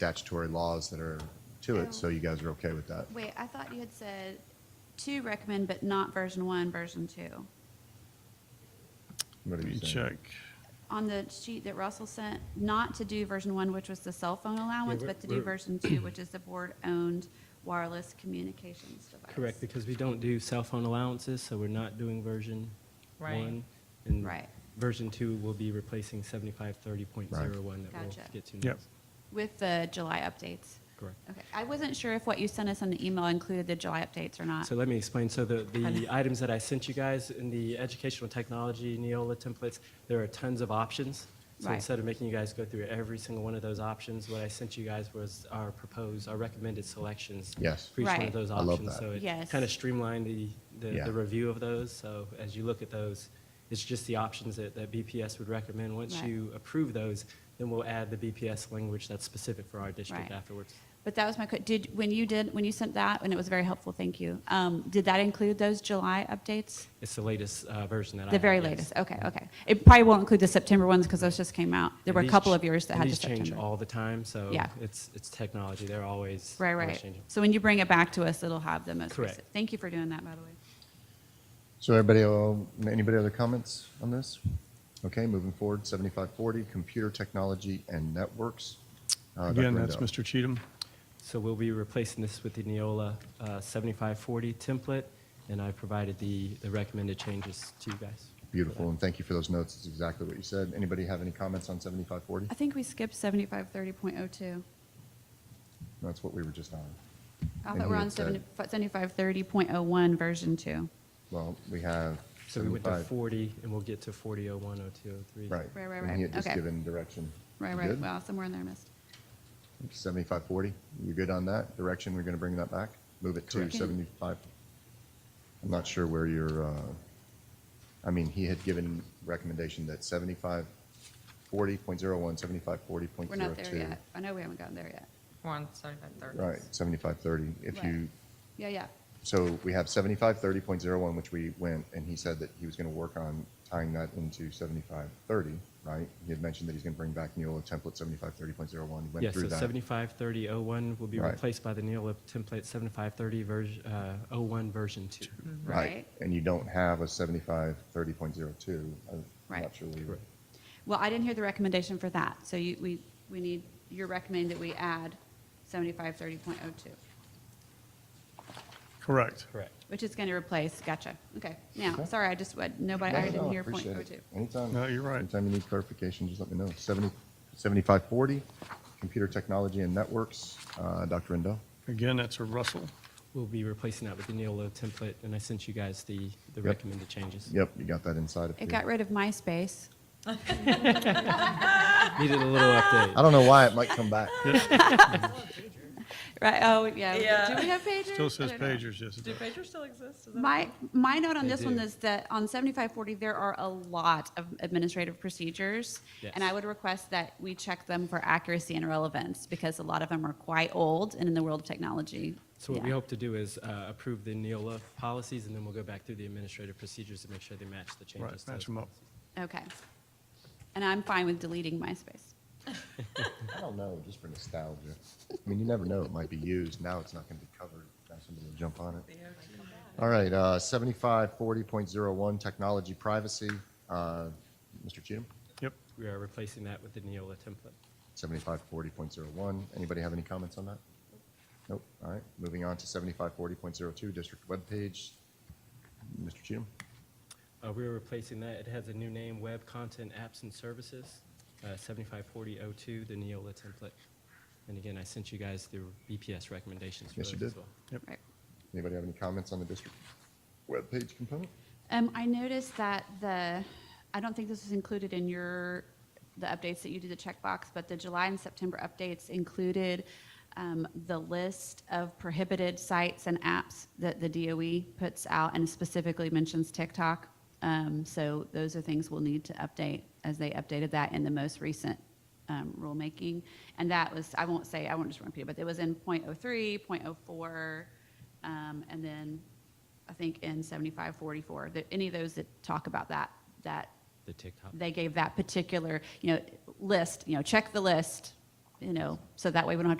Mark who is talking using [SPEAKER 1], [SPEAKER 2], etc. [SPEAKER 1] statutory laws that are to
[SPEAKER 2] Oh.
[SPEAKER 1] it, so you guys are okay with that?
[SPEAKER 2] Wait, I thought you had said to recommend, but not version one, version two.
[SPEAKER 1] What
[SPEAKER 3] Let
[SPEAKER 1] do
[SPEAKER 3] me
[SPEAKER 1] you
[SPEAKER 3] check.
[SPEAKER 1] think?
[SPEAKER 2] On the sheet that Russell sent, not to do version one, which was the cell phone allowance,
[SPEAKER 4] we're-
[SPEAKER 2] but to do
[SPEAKER 4] we're-
[SPEAKER 2] version two, which is the board-owned wireless communications device.
[SPEAKER 4] Correct, because we don't do cell phone allowances, so we're not doing version
[SPEAKER 5] Right.
[SPEAKER 4] one. And
[SPEAKER 2] Right.
[SPEAKER 4] version two will be replacing seventy-five thirty point zero one that we'll
[SPEAKER 2] Gotcha.
[SPEAKER 4] get to
[SPEAKER 3] Yep.
[SPEAKER 4] next.
[SPEAKER 2] With the July updates.
[SPEAKER 4] Correct.
[SPEAKER 2] Okay, I wasn't sure if what you sent us on the email included the July updates or not.
[SPEAKER 4] So let me explain. So the, the
[SPEAKER 2] know.
[SPEAKER 4] items that I sent you guys in the educational technology Neola templates, there are tons of options. So
[SPEAKER 2] Right.
[SPEAKER 4] instead of making you guys go through every single one of those options, what I sent you guys was our proposed, our recommended selections
[SPEAKER 1] Yes.
[SPEAKER 4] for each one
[SPEAKER 2] Right.
[SPEAKER 4] of those
[SPEAKER 1] I love
[SPEAKER 4] options.
[SPEAKER 1] that.
[SPEAKER 4] So it
[SPEAKER 2] Yes.
[SPEAKER 4] kind of streamlined the, the,
[SPEAKER 1] Yeah.
[SPEAKER 4] the review of those. So as you look at those, it's just the options that, that BPS would recommend. Once
[SPEAKER 2] Right.
[SPEAKER 4] you approve those, then we'll add the BPS language that's specific for our district
[SPEAKER 2] Right.
[SPEAKER 4] afterwards.
[SPEAKER 2] But that was my, que- did, when you did, when you sent that, and it was very helpful, thank you, um, did that include those July updates?
[SPEAKER 4] It's the latest uh, version that I
[SPEAKER 2] The
[SPEAKER 4] have,
[SPEAKER 2] very
[SPEAKER 4] yes.
[SPEAKER 2] latest, okay, okay. It probably won't include the September ones because those just came out. There
[SPEAKER 4] And
[SPEAKER 2] were a
[SPEAKER 4] these
[SPEAKER 2] couple
[SPEAKER 4] ch-
[SPEAKER 2] of yours that
[SPEAKER 4] and
[SPEAKER 2] had the
[SPEAKER 4] these change
[SPEAKER 2] September.
[SPEAKER 4] all the time, so
[SPEAKER 2] Yeah.
[SPEAKER 4] it's it's technology. They're always
[SPEAKER 2] Right,
[SPEAKER 4] always
[SPEAKER 2] right.
[SPEAKER 4] changing.
[SPEAKER 2] So when you bring it back to us, it'll have the most
[SPEAKER 4] Correct.
[SPEAKER 2] recent. Thank you for doing that, by the way.
[SPEAKER 1] So everybody, um, anybody other comments on this? Okay, moving forward, seventy-five forty, computer technology and networks. Uh, Dr.
[SPEAKER 3] Again, that's
[SPEAKER 1] Rendell.
[SPEAKER 3] Mr. Cheatham.
[SPEAKER 4] So we'll be replacing this with the Neola uh, 7540 template, and I provided the the recommended changes to you guys.
[SPEAKER 1] Beautiful, and thank you for those notes. It's exactly what you said. Anybody have any comments on seventy-five forty?
[SPEAKER 2] I think we skipped seventy-five thirty point oh two.
[SPEAKER 1] That's what we were just on.
[SPEAKER 2] I
[SPEAKER 1] And
[SPEAKER 2] thought
[SPEAKER 1] he
[SPEAKER 2] we're
[SPEAKER 1] had
[SPEAKER 2] on
[SPEAKER 1] said-
[SPEAKER 2] seventy-five thirty point oh one, version two.
[SPEAKER 1] Well, we have
[SPEAKER 4] So we went to
[SPEAKER 1] seventy-five.
[SPEAKER 4] 40, and we'll get to 4001, 0203.
[SPEAKER 1] Right.
[SPEAKER 2] Right, right,
[SPEAKER 1] And he had
[SPEAKER 2] right.
[SPEAKER 1] just
[SPEAKER 2] Okay.
[SPEAKER 1] given direction.
[SPEAKER 2] Right,
[SPEAKER 1] You
[SPEAKER 2] right,
[SPEAKER 1] good?
[SPEAKER 2] wow, somewhere in there I missed.
[SPEAKER 1] 7540, you're good on that? Direction, we're going to bring that back? Move it to
[SPEAKER 2] Correct.
[SPEAKER 1] 75? I'm not sure where you're, uh, I mean, he had given recommendation that 7540.01, 7540.02.
[SPEAKER 2] We're not there yet. I know we haven't gotten there yet.
[SPEAKER 5] We're on seventy-five thirty.
[SPEAKER 1] Right, 7530. If
[SPEAKER 2] Right.
[SPEAKER 1] you,
[SPEAKER 2] Yeah, yeah,
[SPEAKER 1] so we have 7530.01, which we went, and he said that he was going to work on tying that into 7530, right? He had mentioned that he's going to bring back Neola template 7530.01, he
[SPEAKER 4] Yeah,
[SPEAKER 1] went
[SPEAKER 4] so
[SPEAKER 1] through that.
[SPEAKER 4] 753001 will be
[SPEAKER 1] Right.
[SPEAKER 4] replaced by the Neola template 7530 version, uh, 01 version 2.
[SPEAKER 2] right.
[SPEAKER 1] And you don't have a seventy-five thirty point zero two. I'm not
[SPEAKER 2] Right.
[SPEAKER 1] sure we.
[SPEAKER 4] Correct.
[SPEAKER 2] Well, I didn't hear the recommendation for that, so you, we, we need, you're recommending that we add seventy-five thirty point oh two,
[SPEAKER 3] Correct.
[SPEAKER 4] Correct.
[SPEAKER 2] which is going to replace, gotcha, okay. Now,
[SPEAKER 1] Okay.
[SPEAKER 2] sorry, I just, what- nobody, I didn't hear point oh two.
[SPEAKER 1] Anytime.
[SPEAKER 3] No, you're right.
[SPEAKER 1] Anytime you need clarification, just let me know. Seventy, seventy-five forty, computer technology and networks, uh, Dr. Rendell.
[SPEAKER 3] Again, that's a Russell.
[SPEAKER 4] We'll be replacing that with the Neola template, and I sent you guys the the
[SPEAKER 1] Yep.
[SPEAKER 4] recommended changes.
[SPEAKER 1] Yep, you got that inside of you.
[SPEAKER 2] It got rid of MySpace.
[SPEAKER 4] Needed a little update.
[SPEAKER 1] I don't know why it might come back.
[SPEAKER 2] Right, oh, yeah.
[SPEAKER 5] Yeah.
[SPEAKER 2] Do we have pagers?
[SPEAKER 3] Still
[SPEAKER 2] I
[SPEAKER 3] says
[SPEAKER 2] don't know.
[SPEAKER 3] pagers, yes it
[SPEAKER 5] Do
[SPEAKER 3] does.
[SPEAKER 5] pagers still exist? Is that-
[SPEAKER 2] My, my note on
[SPEAKER 4] They
[SPEAKER 2] this one
[SPEAKER 4] do.
[SPEAKER 2] is that on 7540, there are a lot of administrative procedures. And I
[SPEAKER 4] Yes.
[SPEAKER 2] would request that we check them for accuracy and relevance because a lot of them are quite old and in the world of technology.
[SPEAKER 4] So what
[SPEAKER 2] yeah.
[SPEAKER 4] we hope to do is uh, approve the Neola policies, and then we'll go back through the administrative procedures to make sure they match the changes.
[SPEAKER 3] Right,
[SPEAKER 4] to
[SPEAKER 3] match
[SPEAKER 4] those
[SPEAKER 3] them up.
[SPEAKER 4] policies.
[SPEAKER 2] Okay. And I'm fine with deleting MySpace.
[SPEAKER 1] I don't know, just for nostalgia. I mean, you never know, it might be used. Now it's not going to be covered. Now somebody will jump on it. All right, uh, seventy-five forty point zero one, technology privacy, uh, Mr. Cheatham?
[SPEAKER 3] Yep.
[SPEAKER 4] We are replacing that with the Neola template.
[SPEAKER 1] 7540.01. Anybody have any comments on that? Nope. All right. Moving on to 7540.02, district webpage. Mr. Cheatham?
[SPEAKER 4] Uh, We are replacing that, it has a new name, Web Content Apps and Services, uh, 754002, the Neola template. And again, I sent you guys the BPS recommendations for
[SPEAKER 1] Yes, you
[SPEAKER 4] those as
[SPEAKER 1] did.
[SPEAKER 4] well.
[SPEAKER 2] Right.
[SPEAKER 1] Anybody have any comments on the district webpage component?
[SPEAKER 2] Um, I noticed that the, I don't think this was included in your, the updates that you did the checkbox, but the July and September updates included um, the list of prohibited sites and apps that the DOE puts out and specifically mentions TikTok. Um, So those are things we'll need to update as they updated that in the most recent um, rulemaking. And that was, I won't say, I won't just repeat it, but it was in .03, .04, um, and then I think in 7544, that any of those that talk about that, that
[SPEAKER 4] The TikTok.
[SPEAKER 2] they gave that particular, you know, list, you know, check the list, you know, so that way we don't have to